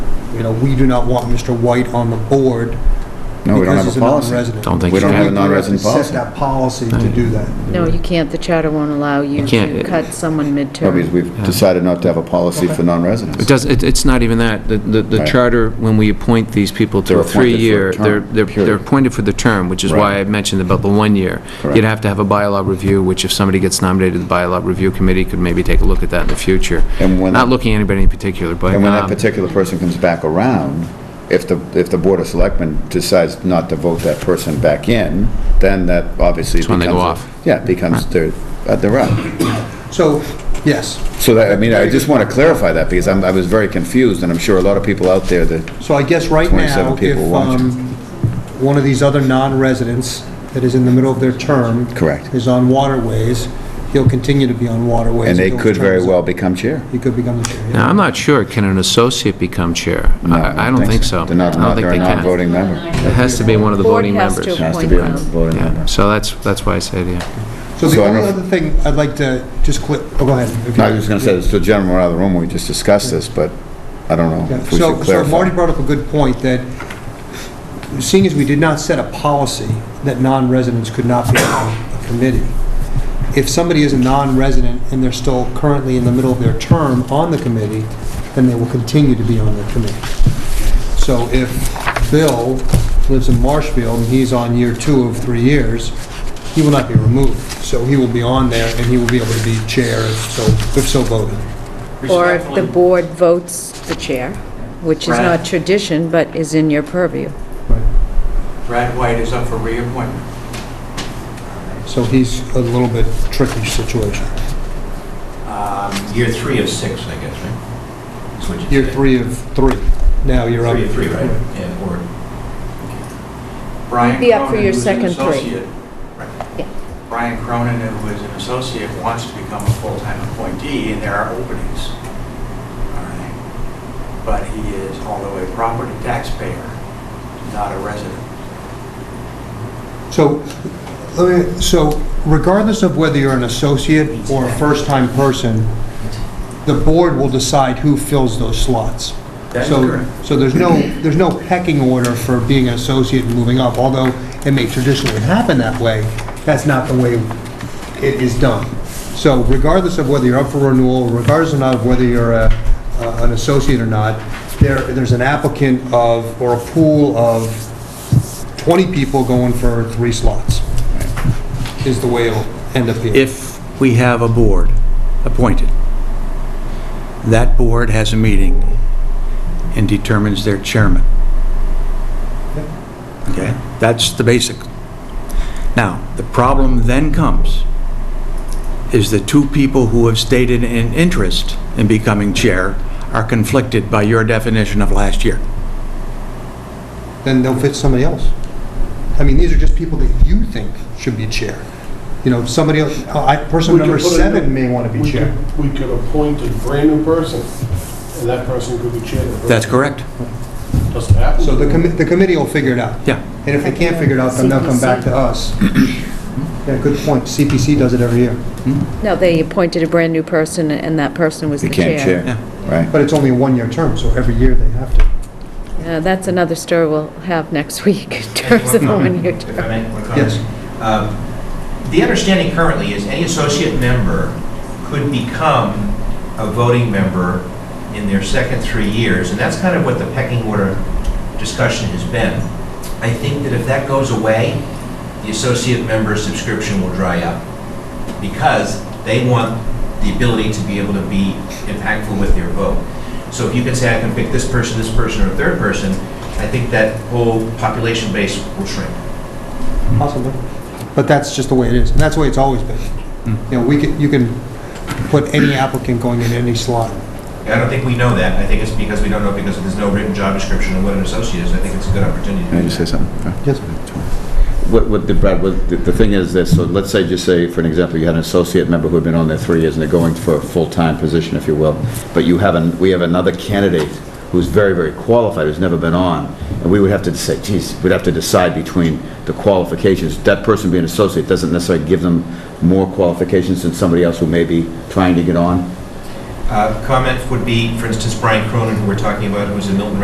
you know, we do not want Mr. White on the board. No, we don't have because he's a policy. non-resident. Don't think We you don't can. have a non-resident So we have to policy. Set that policy to do that. No, you can't, the charter won't allow you You can't. uh, to cut someone No, because midterm. we've decided not to have a policy for non-residents. It does, it- it's not even that. The- The the Right. charter, when we appoint these people to They're a appointed for a three-year, term, they're, they're they're period. appointed for the term, which is why Right. I mentioned about the one year. You'd Correct. have to have a bylaw review, which if somebody gets nominated, to the bylaw review committee could maybe take a look at that in the future. And when- Not looking at anybody in particular, but. And when that um, particular person comes back around, if the, if the Board of Selectmen decides not to vote that person back in, then that obviously becomes... when they go a- off. Yeah, it becomes, they're, uh, they're out. So, yes. So that, I mean, I just want to clarify that, because I'm, I was very confused, and I'm sure a lot of people out there that, So I guess right 27 now, if people watch. um, one of these other non-residents that is in the middle of their term... Correct. Is on waterways, he'll continue to be on waterways. and they until his could term very is up. well become chair. He could become the chair. yeah. Now, I'm not sure, can an associate become chair? I I don't think so. They're not, I don't think they're a they can. non-voting member. It has to be one of the Board voting has to members. It has to be a voting Yeah, member. so that's, that's why I say to you. So the So I only don't know if- other thing I'd like to just clip, oh, go ahead. if No, I you- was just going to say, so Jen, we're out of the room, we just discussed this, but I don't know Yeah, if we So, should so Marty clarify. brought up a good point, that seeing as we did not set a policy that non-residents could not be on a committee, if somebody is a non-resident and they're still currently in the middle of their term on the committee, then they will continue to be on the committee. So if Bill lives in Marshfield and he's on year two of three years, he will not be removed. So he will be on there and he will be able to be chair if so, if so voted. Or if the board votes the chair, which is not Right. tradition, but is in your purview. Brad White is up for reappointment. So he's a little bit tricky situation. Um, Year three is six, I guess, right? That's what you Year said. three of three. Now you're up. Three of three, right? Yeah, or... Brian Be up for Cronin, your who's an second three. associate- right. Yeah. Brian Cronin, who is an associate, wants to become a full-time appointee, and there are openings. All right. But he is, although a property taxpayer, not a resident. So, let me- so regardless of whether you're an associate or a first-time person, the board will decide who fills those slots. That is So- correct. So there's no, there's no pecking order for being an associate and moving up, although it may traditionally happen that way, that's not the way it is done. So regardless of whether you're up for renewal, regardless or not of whether you're a- a- an associate or not, there, there's an applicant of, or a pool of 20 people going for three slots, is the way it'll end up being. if we have a board appointed, that board has a meeting and determines their chairman. Okay? That's the basic. Now, the problem then comes is the two people who have stated an interest in becoming chair are conflicted by your definition of last year. Then they'll fit somebody else. I mean, these are just people that you think should be chair. You know, somebody else, I, person We could number put a- seven may want to be we chair. could- We could appoint a brand-new person, and that person could be chair. That's correct? Doesn't happen. So the committee, the committee will figure it out. Yeah. And if they can't figure it out, then they'll come back to us. Yeah, good point. CPC does it every year, No, they appointed a brand-new person, and that person was the chair. Became chair, Yeah. right? but it's only a one-year term, so every year they have to. Uh, That's another story we'll have next week in terms of the one-year If term. I may, one comment. Yes. Um, The understanding currently is any associate member could become a voting member in their second three years, and that's kind of what the pecking order discussion has been. I think that if that goes away, the associate member subscription will dry up, because they want the ability to be able to be impactful with their vote. So if you can say, I can pick this person, this person, or a third person, I think that whole population base will shrink. Possibly. But that's just the way it is, and that's the way it's always been. You know, we can, you can put any applicant going in any slot. I don't think we know that. I think it's because we don't know because there's no written job description of what an associate is. I think it's a good opportunity. to Can I do just say that. something? Yes. What, what, the- Brad, what, the- the thing is this, so let's say, just say, for an example, you had an associate member who had been on there three years, and they're going for a full-time position, if you will, but you have, an- we have another candidate who's very, very qualified, who's never been on, and we would have to say, geez, we'd have to decide between the qualifications. That person being an associate doesn't necessarily give them more qualifications than somebody else who may be trying to get on? Uh, Comment would be, for instance, Brian Cronin, who we're talking about, who's a Milton